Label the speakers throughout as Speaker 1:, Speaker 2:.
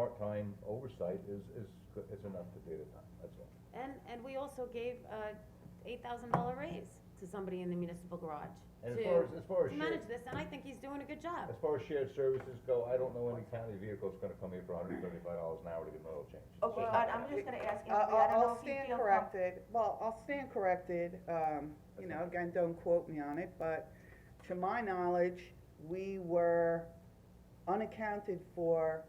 Speaker 1: part-time oversight is, is, is enough to do the time, that's all.
Speaker 2: And, and we also gave a eight thousand dollar raise to somebody in the municipal garage
Speaker 1: And
Speaker 2: to-
Speaker 1: as far as, as far as
Speaker 2: to
Speaker 1: shared,
Speaker 2: manage this, and I think he's doing a good job.
Speaker 1: as far as shared services go, I don't know any county vehicle's gonna come here for hundred and thirty-five dollars an hour to get an oil change. It's
Speaker 3: Okay,
Speaker 1: just
Speaker 3: Oh, I-
Speaker 1: not
Speaker 3: I'm
Speaker 1: happening.
Speaker 3: just gonna ask
Speaker 4: I-
Speaker 3: Anthony, I
Speaker 4: I'll,
Speaker 3: don't know if
Speaker 4: I'll
Speaker 3: you
Speaker 4: stand
Speaker 3: feel com-
Speaker 4: corrected, well, I'll stand corrected, um, you know, again, don't quote me on it, but to my knowledge, we were unaccounted for,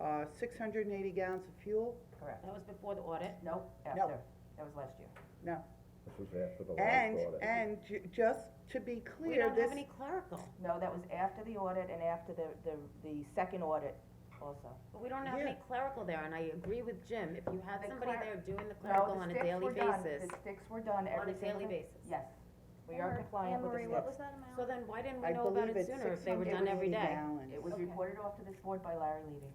Speaker 4: uh, six hundred and eighty gallons of fuel,
Speaker 3: Correct,
Speaker 2: That was before the audit.
Speaker 3: nope, after, that was last year.
Speaker 4: no.
Speaker 1: This was after the
Speaker 4: And,
Speaker 1: last audit.
Speaker 4: and ju- just to be
Speaker 2: We
Speaker 4: clear,
Speaker 2: don't
Speaker 4: this,
Speaker 2: have any clerical,
Speaker 3: No, that was after the audit and after the, the, the second audit also.
Speaker 2: but we don't have any clerical there, and I agree with Jim, if you had
Speaker 3: The
Speaker 2: somebody
Speaker 3: cler-
Speaker 2: there doing the
Speaker 3: No,
Speaker 2: clerical
Speaker 3: the
Speaker 2: on a
Speaker 3: sticks
Speaker 2: daily
Speaker 3: were done.
Speaker 2: basis,
Speaker 3: The sticks were done
Speaker 2: on a
Speaker 3: every single.
Speaker 2: daily basis.
Speaker 3: Yes, we are compliant with the
Speaker 5: Anne Marie,
Speaker 3: sticks.
Speaker 5: what was that amount?
Speaker 2: So then why didn't we
Speaker 4: I
Speaker 2: know about
Speaker 4: believe
Speaker 2: it
Speaker 4: it's
Speaker 2: sooner if
Speaker 4: six
Speaker 2: they were
Speaker 4: hundred
Speaker 2: done
Speaker 4: and eighty
Speaker 2: every day?
Speaker 4: gallons.
Speaker 3: It was
Speaker 2: Okay.
Speaker 3: reported off to this board by Larry Levy.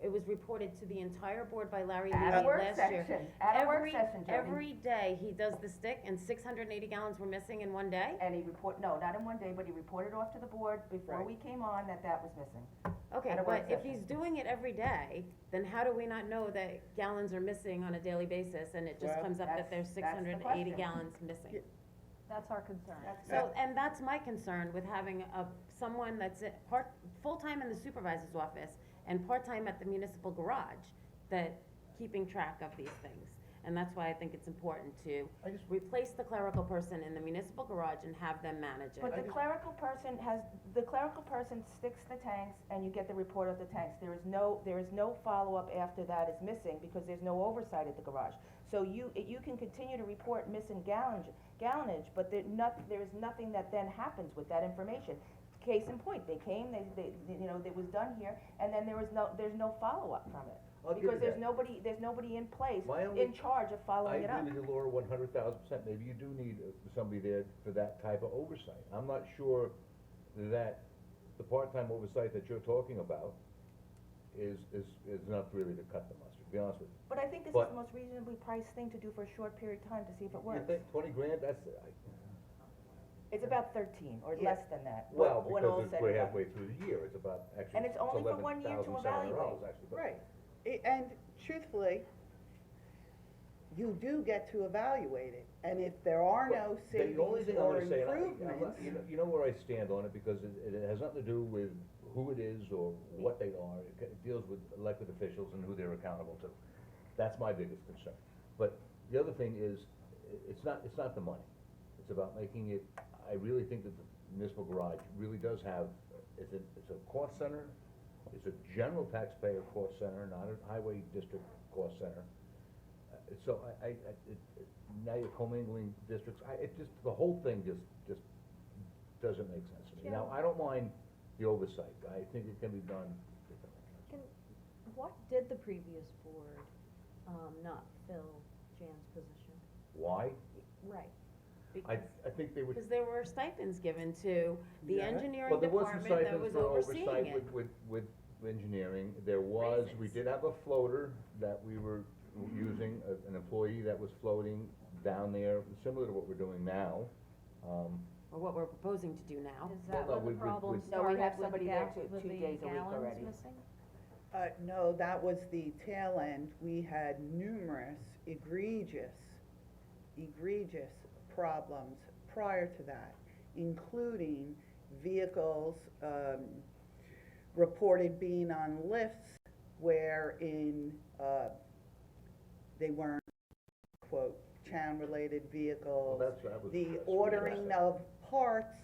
Speaker 2: It was reported to the entire board by Larry Levy
Speaker 3: At a work
Speaker 2: last year.
Speaker 3: session, at a work
Speaker 2: Every-
Speaker 3: session, Joe. and-
Speaker 2: Every day, he does the stick, and six hundred and eighty gallons were missing in one day?
Speaker 3: And he report, no, not in one day, but he reported off to the board before
Speaker 4: Right.
Speaker 3: we came on that that was missing.
Speaker 2: Okay,
Speaker 3: At a
Speaker 2: but
Speaker 3: work
Speaker 2: if
Speaker 3: session.
Speaker 2: he's doing it every day, then how do we not know that gallons are missing on a daily basis, and it just
Speaker 4: Well,
Speaker 2: comes up
Speaker 3: that's-
Speaker 2: that there's
Speaker 3: that's the
Speaker 2: six hundred and eighty
Speaker 3: question.
Speaker 2: gallons missing?
Speaker 5: That's our concern.
Speaker 3: That's
Speaker 2: So, and that's my concern with having a, someone that's a part, full-time in the supervisor's office and part-time at the municipal garage, that keeping track of these things. And that's why I think it's important to
Speaker 1: I just-
Speaker 2: replace the clerical person in the municipal garage and have them manage
Speaker 3: But
Speaker 2: it.
Speaker 3: the clerical person has, the clerical person sticks the tanks and you get the report of the tanks. There is no, there is no follow-up after that is missing because there's no oversight at the garage. So you, it- you can continue to report missing gallonage, gallonage, but there not, there is nothing that then happens with that information. Case in point, they came, they, they, you know, it was done here and then there was no, there's no follow-up from it.
Speaker 1: I'll give you
Speaker 3: Because there's
Speaker 1: that.
Speaker 3: nobody, there's nobody in place,
Speaker 1: My only-
Speaker 3: in charge of following it
Speaker 1: I
Speaker 3: up.
Speaker 1: agree with you, Laura, one hundred thousand percent, maybe you do need uh, somebody there for that type of oversight. I'm not sure that the part-time oversight that you're talking about is, is, is enough really to cut the mustard, to be honest with you.
Speaker 3: But I think this is
Speaker 1: But-
Speaker 3: the most reasonably priced thing to do for a short period of time to see if it
Speaker 1: You
Speaker 3: works.
Speaker 1: think twenty grand, that's, uh, I-
Speaker 3: It's about thirteen or
Speaker 4: Yeah.
Speaker 3: less than that. when-
Speaker 1: well,
Speaker 3: when all
Speaker 1: because
Speaker 3: is
Speaker 1: it's-
Speaker 3: said
Speaker 1: we're
Speaker 3: and done.
Speaker 1: halfway through the year, it's about, actually,
Speaker 3: And it's
Speaker 1: it's
Speaker 3: only for
Speaker 1: eleven
Speaker 3: one year to
Speaker 1: thousand seven hundred dollars,
Speaker 3: evaluate.
Speaker 1: actually. but-
Speaker 4: Right, I- and truthfully, you do get to evaluate it, and if there are
Speaker 1: Well,
Speaker 4: no savings
Speaker 1: The only thing I
Speaker 4: or
Speaker 1: wanna say, and I- I'm not-
Speaker 4: improvements,
Speaker 1: you know, you know where I stand on it, because it, it has nothing to do with who it is or what they are, It ca- it deals with elected officials and who they're accountable to. That's my biggest concern. But the other thing is, i- it's not, it's not the money, it's about making it, I really think that the municipal garage really does have, it's a, it's a cost center, it's a general taxpayer cost center, not a highway district cost center. Uh, So I, I, I- it, it- now you're commingling districts, I, it just, the whole thing just, just doesn't make sense to me. Now, I don't mind the oversight, I think it can be done differently.
Speaker 5: What did the previous board, um, not fill Jan's position?
Speaker 1: Why?
Speaker 5: Right.
Speaker 1: I,
Speaker 2: Because
Speaker 1: I think they would.
Speaker 2: because there were stipends given to the
Speaker 4: Yeah.
Speaker 2: engineering department that was
Speaker 1: Well, there was
Speaker 2: overseeing
Speaker 1: some
Speaker 2: it.
Speaker 1: stipends for oversight with, with, with engineering, there was, we
Speaker 2: Raises.
Speaker 1: did have a floater that we were using, a- an employee that was floating down there, similar to what we're doing now. Um,
Speaker 2: Or what we're proposing to do now.
Speaker 5: Is
Speaker 1: Well,
Speaker 5: that
Speaker 1: no,
Speaker 5: where
Speaker 1: we-
Speaker 5: the
Speaker 1: we-
Speaker 5: problem
Speaker 1: we-
Speaker 3: No, we have
Speaker 5: started with
Speaker 3: somebody
Speaker 5: the
Speaker 3: there
Speaker 5: gal-
Speaker 3: two-
Speaker 5: with
Speaker 3: two
Speaker 5: the
Speaker 3: days a week
Speaker 5: gallons
Speaker 3: already.
Speaker 5: missing?
Speaker 4: uh, no, that was the tail end, we had numerous egregious, egregious problems prior to that, including vehicles, um, reported being on lifts wherein, uh, they weren't, quote, town-related
Speaker 1: Well,
Speaker 4: vehicles.
Speaker 1: that's, that was.
Speaker 4: the
Speaker 1: that's what we
Speaker 4: ordering
Speaker 1: had.
Speaker 4: of parts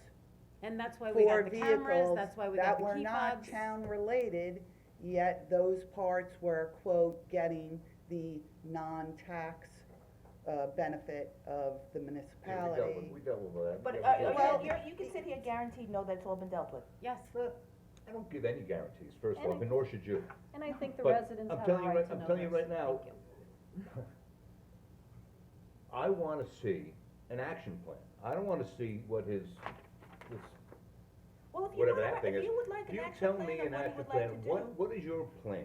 Speaker 2: And that's why we
Speaker 4: for
Speaker 2: got the cameras,
Speaker 4: vehicles
Speaker 2: that's why we got
Speaker 4: that
Speaker 2: the
Speaker 4: were
Speaker 2: key
Speaker 4: not
Speaker 2: fobs.
Speaker 4: town-related, yet those parts were, quote, getting the non-tax, uh, benefit of the
Speaker 1: Yeah, we dealt
Speaker 4: municipality.
Speaker 1: with, we dealt with that.
Speaker 3: But,
Speaker 1: We
Speaker 3: uh,
Speaker 1: dealt with that.
Speaker 3: uh, you're, you can sit here guaranteed, no, that's all been dealt with.
Speaker 2: Yes,
Speaker 1: I don't give any guarantees, first of
Speaker 5: And
Speaker 1: all, but nor should you.
Speaker 5: And I think the
Speaker 1: But
Speaker 5: residents
Speaker 1: I'm
Speaker 5: have a
Speaker 1: telling you
Speaker 5: right
Speaker 1: right-
Speaker 5: to
Speaker 1: I'm
Speaker 5: know
Speaker 1: telling you
Speaker 5: this.
Speaker 1: right now,
Speaker 5: Thank you.
Speaker 1: I wanna see an action plan. I don't wanna see what his, this,
Speaker 3: Well, if you
Speaker 1: whatever
Speaker 3: wanna-
Speaker 1: that thing is.
Speaker 3: If you would like an
Speaker 1: You
Speaker 3: action
Speaker 1: tell
Speaker 3: plan
Speaker 1: me
Speaker 3: of
Speaker 1: an
Speaker 3: what you
Speaker 1: action
Speaker 3: would like
Speaker 1: plan,
Speaker 3: to do.
Speaker 1: what, what is your plan?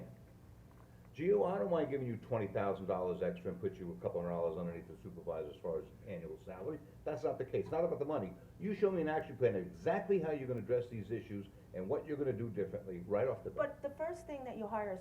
Speaker 1: Gio, I don't mind giving you twenty thousand dollars extra and put you a couple hundred dollars underneath the supervisor as far as annual salary. That's not the case, not about the money. You show me an action plan, of exactly how you're gonna address these issues and what you're gonna do differently right off the bat.
Speaker 3: But the first thing that you hire